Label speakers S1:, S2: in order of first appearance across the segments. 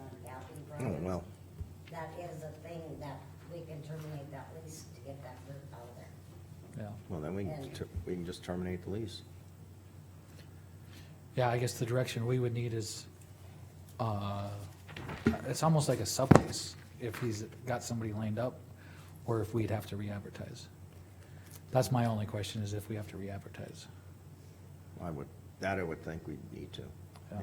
S1: Oh,
S2: Oh,
S1: well,
S3: That is a thing that we can terminate that lease to get that group out of there.
S2: yeah.
S1: well, then we can, ter- we can just terminate the lease.
S2: Yeah, I guess the direction we would need is, uh, it's almost like a sublease, if he's got somebody lined up, or if we'd have to re-advertise. That's my only question, is if we have to re-advertise.
S1: I would, that I would think we'd need to.
S2: Yeah.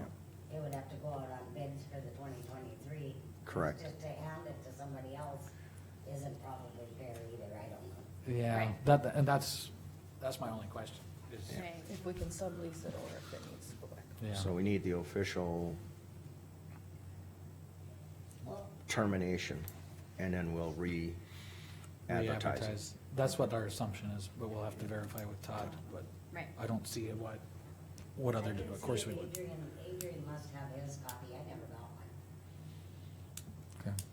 S3: It would have to go out on bids for the twenty twenty-three.
S1: Correct.
S3: Just to hand it to somebody else isn't probably fair either, I don't know.
S2: Yeah,
S4: Right.
S2: that, and that's, that's my only question, is,
S4: Right, if we can sublease it or if it needs to go back.
S2: yeah.
S1: So we need the official termination, and then we'll re-advertise it.
S2: Re-advertise. That's what our assumption is, but we'll have to verify with Todd, but
S4: Right.
S2: I don't see what, what other,
S3: I can
S2: of course
S3: see
S2: we would.
S3: Adrian, Adrian must have his copy, I never got one.
S2: Okay.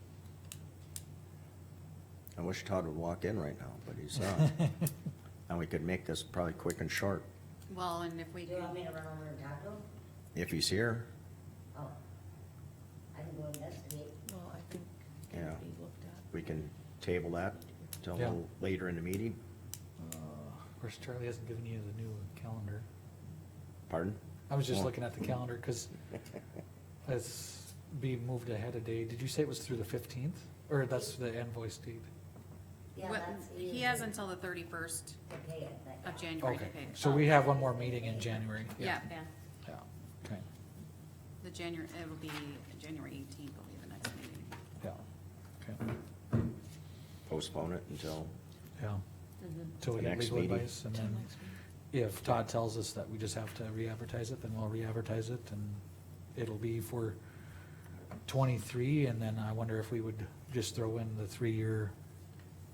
S1: I wish Todd would walk in right now, but he's not. And we could make this probably quick and short,
S5: Well, and if we
S3: Do
S5: do,
S3: you want me to run over and talk to him?
S1: if he's here.
S3: Oh. I can go investigate.
S4: Well, I think it can
S1: Yeah.
S4: be looked at.
S1: We can table that till a
S2: Yeah.
S1: little later in the meeting.
S2: Uh, Of course, Charlie hasn't given you the new calendar.
S1: Pardon?
S2: I was just
S1: Oh.
S2: looking at the calendar, because it's be moved ahead a day. Did you say it was through the fifteenth? Or that's the invoice date?
S3: Yeah,
S5: what-
S3: that's easy
S5: he has until the thirty-first
S3: To pay it, but-
S5: of January to
S2: Okay,
S5: pay. it.
S2: so we have one more meeting in January.
S5: Yeah, yeah,
S2: Yeah, okay,
S5: the January, it'll be January eighteenth will be the next meeting.
S2: yeah, okay,
S1: Postpone it until,
S2: yeah. Till we
S1: The
S2: get
S1: next
S2: legal
S1: meeting.
S2: advice, and
S4: Till
S2: then
S4: next week.
S2: if Todd tells us that we just have to re-advertise it, then we'll re-advertise it, and it'll be for twenty-three, and then I wonder if we would just throw in the three-year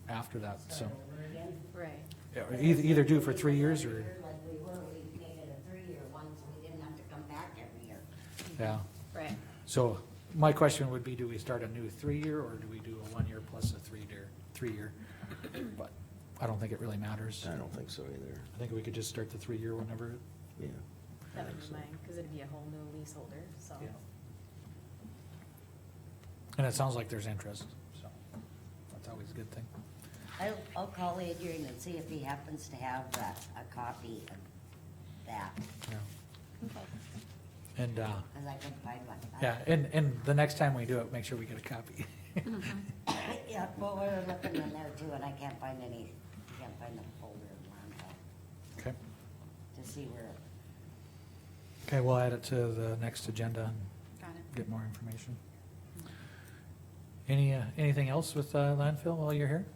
S2: after that, so.
S3: Start over again.
S5: Right.
S2: Yeah, or Either, either do for three years, or,
S3: Like we were, we made it a three-year one, so we didn't have to come back every year.
S2: yeah.
S5: Right,
S2: So my question would be, do we start a new three-year or do we do a one-year plus a three-year, three-year? But I don't think it really matters.
S1: I don't think so either,
S2: I think we could just start the three-year whenever,
S1: yeah.
S4: That would be mine, cause it'd be a whole new leaseholder, so.
S2: yeah. And it sounds like there's interest, so that's always a good thing.
S3: I'll, I'll call Adrian and see if he happens to have that, a copy of that,
S2: Yeah. And, uh,
S3: cause I couldn't find one.
S2: yeah, and, and the next time we do it, make sure we get a copy.
S3: Yeah, well, we were looking in there too, and I can't find any, can't find the folder of mine, but
S2: Okay.
S3: to see where,
S2: Okay, we'll add it to the next agenda and
S5: got it.
S2: get more information. Any, uh, anything else with uh, landfill while you're here?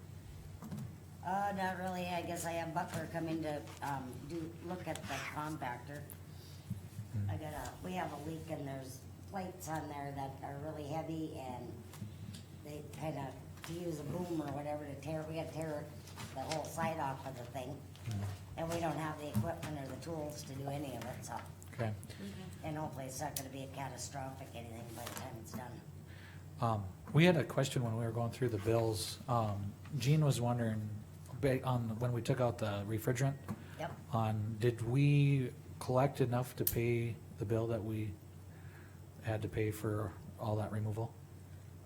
S3: uh, not really, I guess I have Butler coming to, um, do, look at the compactor. I got a, we have a leak and there's plates on there that are really heavy and they kinda, to use a boom or whatever to tear, we gotta tear the whole side off of the thing. And we don't have the equipment or the tools to do any of it, so,
S2: Okay.
S3: and hopefully it's not gonna be a catastrophic anything by the time it's done.
S2: Um, we had a question when we were going through the bills. Um, Jean was wondering, ba- on, when we took out the refrigerant,
S3: Yep,
S2: on, did we collect enough to pay the bill that we had to pay for all that removal?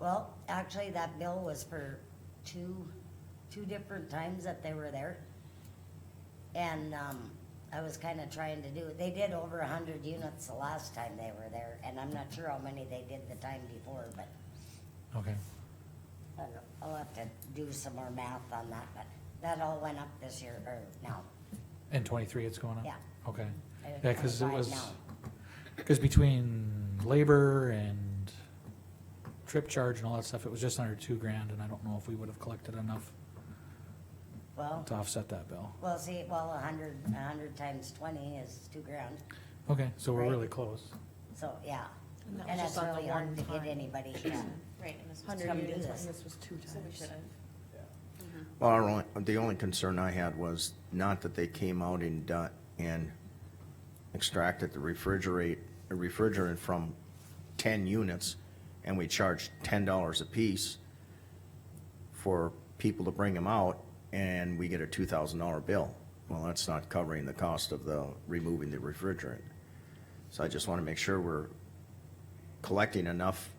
S3: well, actually, that bill was for two, two different times that they were there. And, um, I was kinda trying to do, they did over a hundred units the last time they were there, and I'm not sure how many they did the time before, but
S2: Okay,
S3: I don't know. I'll have to do some more math on that, but that all went up this year, or now.
S2: in twenty-three it's going up?
S3: Yeah.
S2: Okay,
S3: I-
S2: yeah, cause it
S3: I
S2: was,
S3: know.
S2: cause between labor and trip charge and all that stuff, it was just under two grand, and I don't know if we would have collected enough
S3: Well,
S2: to offset that bill.
S3: well, see, well, a hundred, a hundred times twenty is two grand,
S2: Okay, so we're
S3: Right.
S2: really close.
S3: so, yeah.
S4: And that was
S3: And
S4: just
S3: it's
S4: on the
S3: really hard
S4: one
S3: to get
S4: time.
S3: anybody, yeah.
S5: Right, and this
S3: Come
S5: was
S4: Hundred
S3: do
S4: units,
S3: this.
S4: and this was two times.
S1: Well, our only, the only concern I had was not that they came out and, done- and extracted the refrigerate, the refrigerant from ten units, and we charged ten dollars apiece for people to bring them out, and we get a two thousand dollar bill. Well, that's not covering the cost of the, removing the refrigerant. So I just wanna make sure we're collecting enough